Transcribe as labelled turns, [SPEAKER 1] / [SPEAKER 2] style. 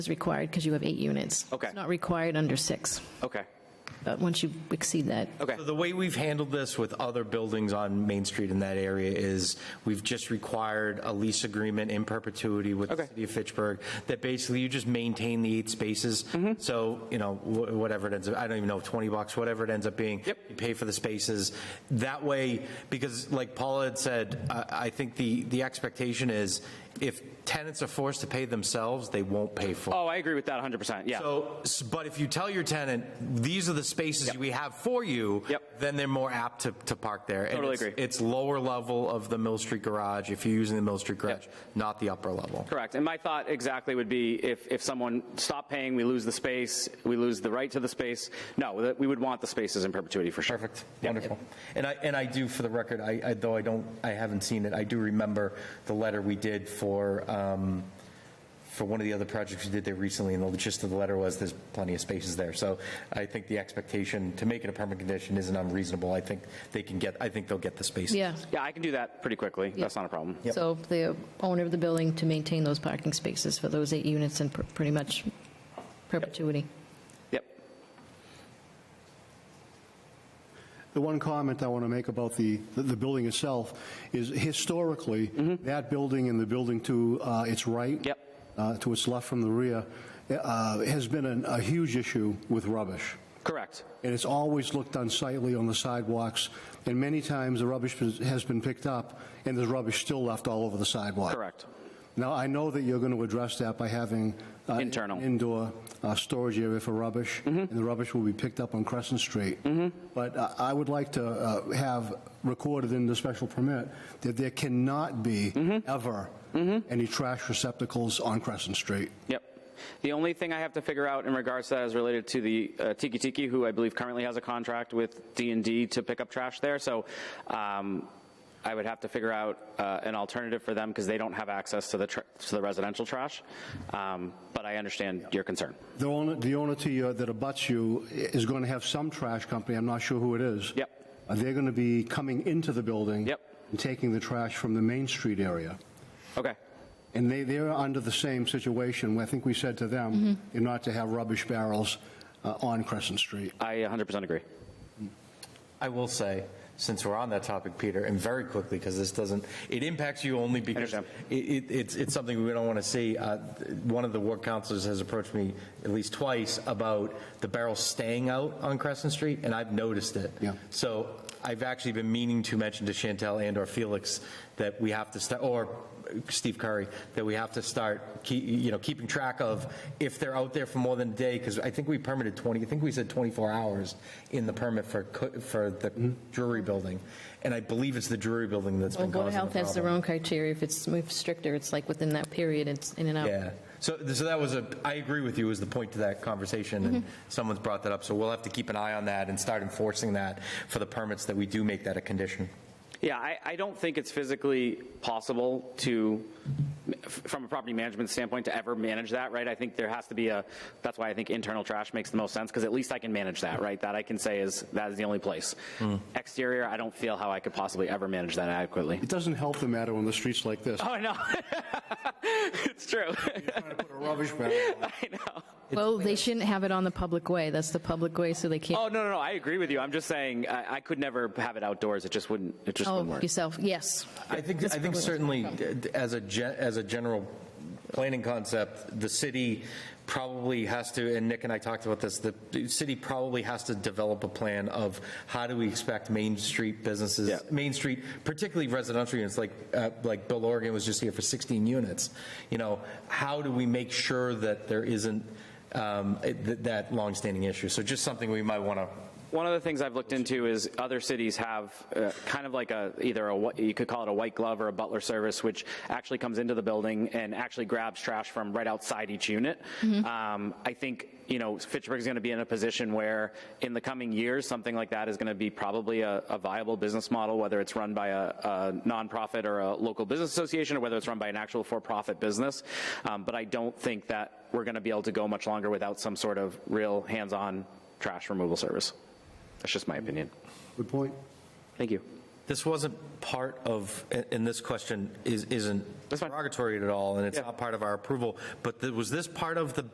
[SPEAKER 1] is required because you have eight units.
[SPEAKER 2] Okay.
[SPEAKER 1] It's not required under six,
[SPEAKER 2] Okay,
[SPEAKER 1] but once you exceed that,
[SPEAKER 2] okay,
[SPEAKER 3] So The way we've handled this with other buildings on Main Street in that area is we've just required a lease agreement in perpetuity with the
[SPEAKER 2] Okay.
[SPEAKER 3] city of Fitchburg that basically you just maintain the eight spaces.
[SPEAKER 2] Mm-hmm.
[SPEAKER 3] So, you know, wh- whatever it ends up, I don't even know, 20 bucks, whatever it ends up being.
[SPEAKER 2] Yep.
[SPEAKER 3] You pay for the spaces. That way, because like Paula had said, I, I think the, the expectation is if tenants are forced to pay themselves, they won't pay for it.
[SPEAKER 2] oh, I agree with that 100%, yeah.
[SPEAKER 3] So, s- but if you tell your tenant, these are the spaces we have for you,
[SPEAKER 2] Yep.
[SPEAKER 3] then they're more apt to, to park there. And
[SPEAKER 2] Totally
[SPEAKER 3] it's-
[SPEAKER 2] agree.
[SPEAKER 3] It's lower level of the Mill Street garage, if you're using the Mill Street garage, not the upper level.
[SPEAKER 2] Correct. And my thought exactly would be if, if someone stopped paying, we lose the space, we lose the right to the space. No, that- we would want the spaces in perpetuity for sure.
[SPEAKER 3] Perfect, wonderful. And I, and I do, for the record, I, I- though I don't, I haven't seen it, I do remember the letter we did for, um, for one of the other projects we did there recently, and the gist of the letter was there's plenty of spaces there. So I think the expectation to make it a permanent condition isn't unreasonable. I think they can get, I think they'll get the spaces.
[SPEAKER 1] yeah.
[SPEAKER 2] Yeah, I can do that pretty quickly. That's not a problem.
[SPEAKER 1] So the owner of the building to maintain those parking spaces for those eight units in per- pretty much perpetuity.
[SPEAKER 2] Yep.
[SPEAKER 4] The one comment I want to make about the, the building itself is historically, that building and the building to uh, its right.
[SPEAKER 2] Mm-hmm. Yep.
[SPEAKER 4] uh, To its left from the rear, uh, has been an- a huge issue with rubbish.
[SPEAKER 2] Correct.
[SPEAKER 4] And it's always looked unsightly on the sidewalks, and many times the rubbish has been picked up, and there's rubbish still left all over the sidewalk.
[SPEAKER 2] Correct.
[SPEAKER 4] Now, I know that you're going to address that by having. uh,
[SPEAKER 2] Internal. Mm-hmm.
[SPEAKER 4] Indoor uh, storage area for rubbish. And the rubbish will be picked up on Crescent Street. But uh, I would like to uh, have recorded in the special permit that there cannot be
[SPEAKER 2] Mm-hmm.
[SPEAKER 4] ever any trash receptacles on Crescent Street.
[SPEAKER 2] Yep. The only thing I have to figure out in regards to that is related to the uh, Tiki Tiki, who I believe currently has a contract with D and D to pick up trash there. So um, I would have to figure out uh, an alternative for them because they don't have access to the tr- to the residential trash. Um, but I understand your concern.
[SPEAKER 4] The owner, the owner to you that abuts you is going to have some trash company, I'm not sure who it is.
[SPEAKER 2] Yep.
[SPEAKER 4] Uh, They're going to be coming into the building.
[SPEAKER 2] Yep.
[SPEAKER 4] And taking the trash from the Main Street area.
[SPEAKER 2] Okay.
[SPEAKER 4] And they, they're under the same situation. I think we said to them, you're not to have rubbish barrels uh, on Crescent Street.
[SPEAKER 2] I 100% agree.
[SPEAKER 3] I will say, since we're on that topic, Peter, and very quickly, because this doesn't, it impacts you only because it,
[SPEAKER 2] Understand.
[SPEAKER 3] it, it's, it's something we don't want to see. Uh, One of the ward councilors has approached me at least twice about the barrels staying out on Crescent Street, and I've noticed it.
[SPEAKER 4] Yeah.
[SPEAKER 3] So I've actually been meaning to mention to Chantel and or Felix that we have to start, or Steve Curry, that we have to start, keep, you know, keeping track of if they're out there for more than a day, because I think we permitted 20, I think we said 24 hours in the permit for, co- for the Drury Building. And I believe it's the Drury Building that's
[SPEAKER 1] Well,
[SPEAKER 3] been
[SPEAKER 1] Board
[SPEAKER 3] causing
[SPEAKER 1] of
[SPEAKER 3] the
[SPEAKER 1] Health has their
[SPEAKER 3] problem.
[SPEAKER 1] own criteria. If it's moved stricter, it's like within that period, it's in and out.
[SPEAKER 3] Yeah, so, so that was a, I agree with you, was the point to that conversation, and someone's brought that up, so we'll have to keep an eye on that and start enforcing that for the permits that we do make that a condition.
[SPEAKER 2] Yeah, I, I don't think it's physically possible to, f- from a property management standpoint, to ever manage that, right? I think there has to be a, that's why I think internal trash makes the most sense, because at least I can manage that, right? That I can say is, that is the only place. Exterior, I don't feel how I could possibly ever manage that adequately.
[SPEAKER 4] It doesn't help the matter on the streets like this.
[SPEAKER 2] Oh, no. It's true.
[SPEAKER 4] Put a rubbish barrel.
[SPEAKER 2] I know.
[SPEAKER 1] Well, they shouldn't have it on the public way. That's the public way, so they
[SPEAKER 2] Oh,
[SPEAKER 1] can't,
[SPEAKER 2] no, no, no, I agree with you. I'm just saying, I, I could never have it outdoors. It just wouldn't, it just wouldn't
[SPEAKER 1] oh,
[SPEAKER 2] work.
[SPEAKER 1] yourself, yes.
[SPEAKER 3] I think, I think certainly, d- as a, ge- as a general planning concept, the city probably has to, and Nick and I talked about this, the the city probably has to develop a plan of how do we expect Main Street businesses,
[SPEAKER 2] Yeah.
[SPEAKER 3] Main Street, particularly residential units, like, uh, like Bill Oregon was just here for 16 units, you know, how do we make sure that there isn't um, it- th- that longstanding issue? So just something we might want to,
[SPEAKER 2] One of the things I've looked into is other cities have uh, kind of like a either a wh- you could call it a white glove or a butler service, which actually comes into the building and actually grabs trash from right outside each unit. Um, I think you know Fitchburg is going to be in a position where in the coming years something like that is going to be probably a, a viable business model, whether it's run by a, a nonprofit or a local business association, or whether it's run by an actual for-profit business. Um, but I don't think that we're going to be able to go much longer without some sort of real hands-on trash removal service. That's just my opinion.
[SPEAKER 4] Good point.
[SPEAKER 2] Thank you.
[SPEAKER 3] This wasn't part of, and this question is- isn't
[SPEAKER 2] That's fine.
[SPEAKER 3] derogatory at all, and it's
[SPEAKER 2] Yeah.
[SPEAKER 3] not part of our approval, but th- was this part of the